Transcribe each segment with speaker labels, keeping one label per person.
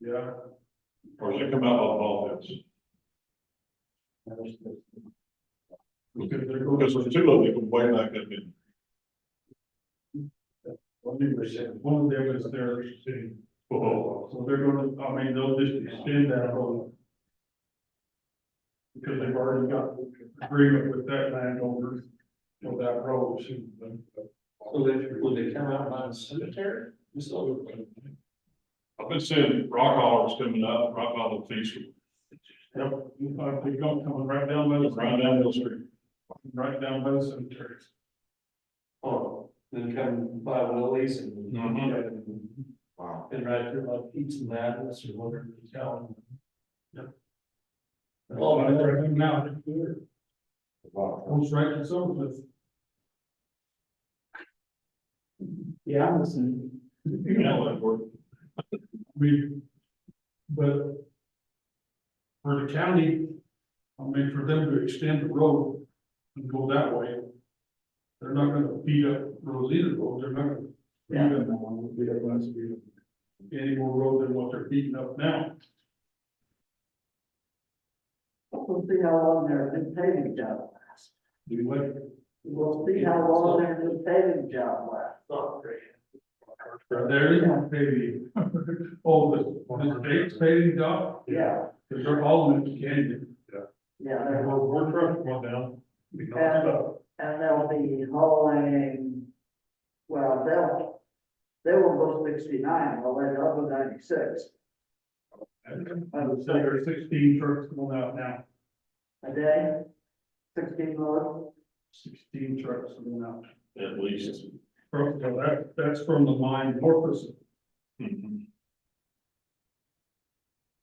Speaker 1: Yeah. Or does it come out of all this? Because there- because there's two of them way back up in. One of them, one of them is their city. So they're gonna, I mean, they'll just extend that whole. Because they've already got agreement with that landowner, for that road. So then, would they come out by the cemetery? I've been seeing rock hollers coming up right by the feast. Yep, uh, they go coming right down Middle. Right down Middle Street. Right down by the cemetery.
Speaker 2: Oh, then come by Willie's and.
Speaker 1: Mm-hmm.
Speaker 3: Wow.
Speaker 2: And right through like Pete's and Madness or whatever you tell them. Yep.
Speaker 1: Oh, I never hung out in there.
Speaker 3: Wow.
Speaker 1: Almost right to Summerlin.
Speaker 2: Yeah, I'm listening.
Speaker 1: You know that work. We, but. For the county, I mean, for them to extend the road and go that way. They're not gonna beat up Rosita Road, they're not gonna.
Speaker 2: Yeah.
Speaker 1: beat up- beat up us, beat up Any more road than what they're beating up now.
Speaker 4: We'll see how long their new paving job lasts.
Speaker 1: Do you like?
Speaker 4: We'll see how long their new paving job lasts.
Speaker 1: There is one paving. Oh, the, the state's paving dog,
Speaker 4: Yeah,
Speaker 1: because they're all in the canyon.
Speaker 4: yeah, they're-
Speaker 1: we're trucking one down. We know
Speaker 4: And-
Speaker 1: about.
Speaker 4: and they'll be hauling, well, they'll, they will go sixty-nine, well, they go to
Speaker 1: So
Speaker 4: ninety-six.
Speaker 1: there are sixteen trucks going out now,
Speaker 4: A day, sixteen loads,
Speaker 1: sixteen trucks going out.
Speaker 3: At least.
Speaker 1: From, so that, that's from the mine Morpheus.
Speaker 3: Mm-hmm.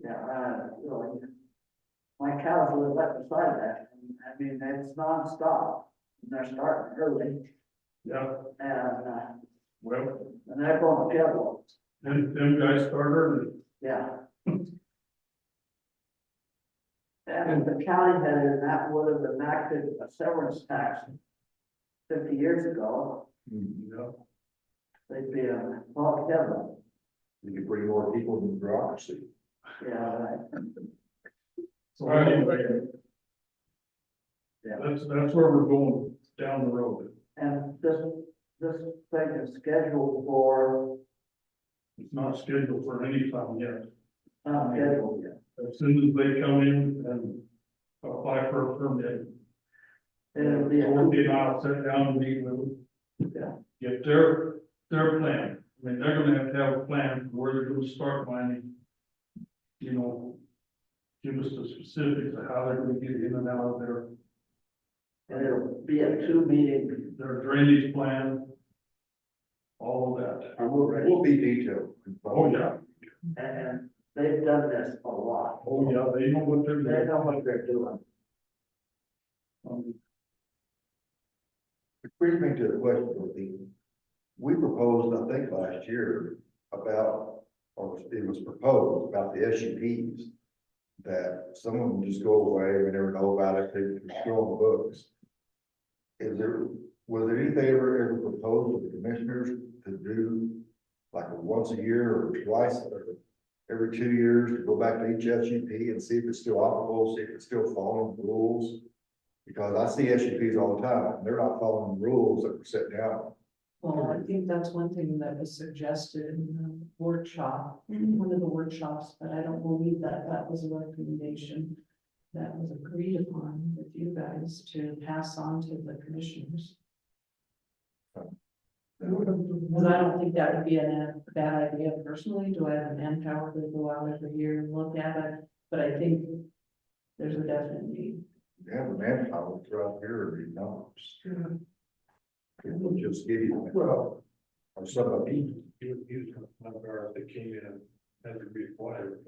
Speaker 4: yeah, uh, really. My cows live right beside that, and, I mean, it's nonstop, and they're starting early,
Speaker 1: Yeah,
Speaker 4: and, uh,
Speaker 1: well,
Speaker 4: and they're going to get one,
Speaker 1: then, them guys start early.
Speaker 4: yeah. And the county had in that would have enacted a severance tax fifty years ago,
Speaker 3: Mm-hmm.
Speaker 1: Yeah.
Speaker 4: they'd be uh, on log cabin,
Speaker 3: You can bring more people in bureaucracy.
Speaker 4: yeah, right.
Speaker 1: So anyway.
Speaker 4: Yeah.
Speaker 1: That's, that's where we're going, down the road.
Speaker 4: And this, this thing is scheduled for,
Speaker 1: It's not scheduled for any time yet.
Speaker 4: not scheduled yet.
Speaker 1: As soon as they come in and apply for a permit,
Speaker 4: It'll be,
Speaker 1: We'll
Speaker 4: a-
Speaker 1: get out, sit down and meet with
Speaker 4: Yeah.
Speaker 1: them. Get their, their plan. I mean, they're gonna have to have a plan for where they're gonna start mining. You know, give us the specifics of how they're gonna get in and out of their,
Speaker 4: it'll be a two meeting,
Speaker 1: their drainage plan. All of that.
Speaker 3: And we'll, we'll be detailed.
Speaker 1: Oh, yeah.
Speaker 4: and they've done this a lot,
Speaker 1: Oh, yeah, they know what they're
Speaker 4: they
Speaker 1: doing.
Speaker 4: know what they're doing.
Speaker 1: Um,
Speaker 3: Which Brings me to the question, Dorothy. We proposed, I think last year, about, or it was proposed about the SUPs. That some of them just go away, we never know about it, they're still on the books. Is there, was there anything ever, ever proposed to the commissioners to do like a once a year or twice or every two years to go back to each SUP and see if it's still operable, see if it's still following the rules? Because I see SUPs all the time, and they're not following the rules that were set down.
Speaker 5: Well, I think that's one thing that was suggested in the workshop, one of the workshops, but I don't believe that that was a recommendation that was agreed upon with you guys to pass on to the commissioners. Because I don't think that would be a bad idea personally. Do I have the manpower to go out every year and look at it? But I think there's a definite need.
Speaker 3: You have the manpower throughout here, and you know, people just give you. Well. Or some of these.
Speaker 1: You would use one of our, that came in, had to be acquired.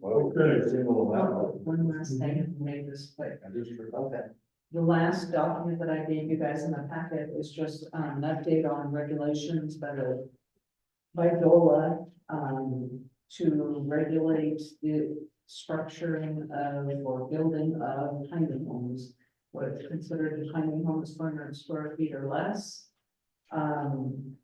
Speaker 3: well,
Speaker 1: Okay.
Speaker 3: single amount.
Speaker 5: One last thing, and make this quick.
Speaker 3: I just forgot that.
Speaker 5: The last document that I gave you guys in the packet is just um, an update on regulations by the by DOLA um, to regulate the structuring of or building of tiny homes. What's considered a tiny home is four hundred square feet or less. Um,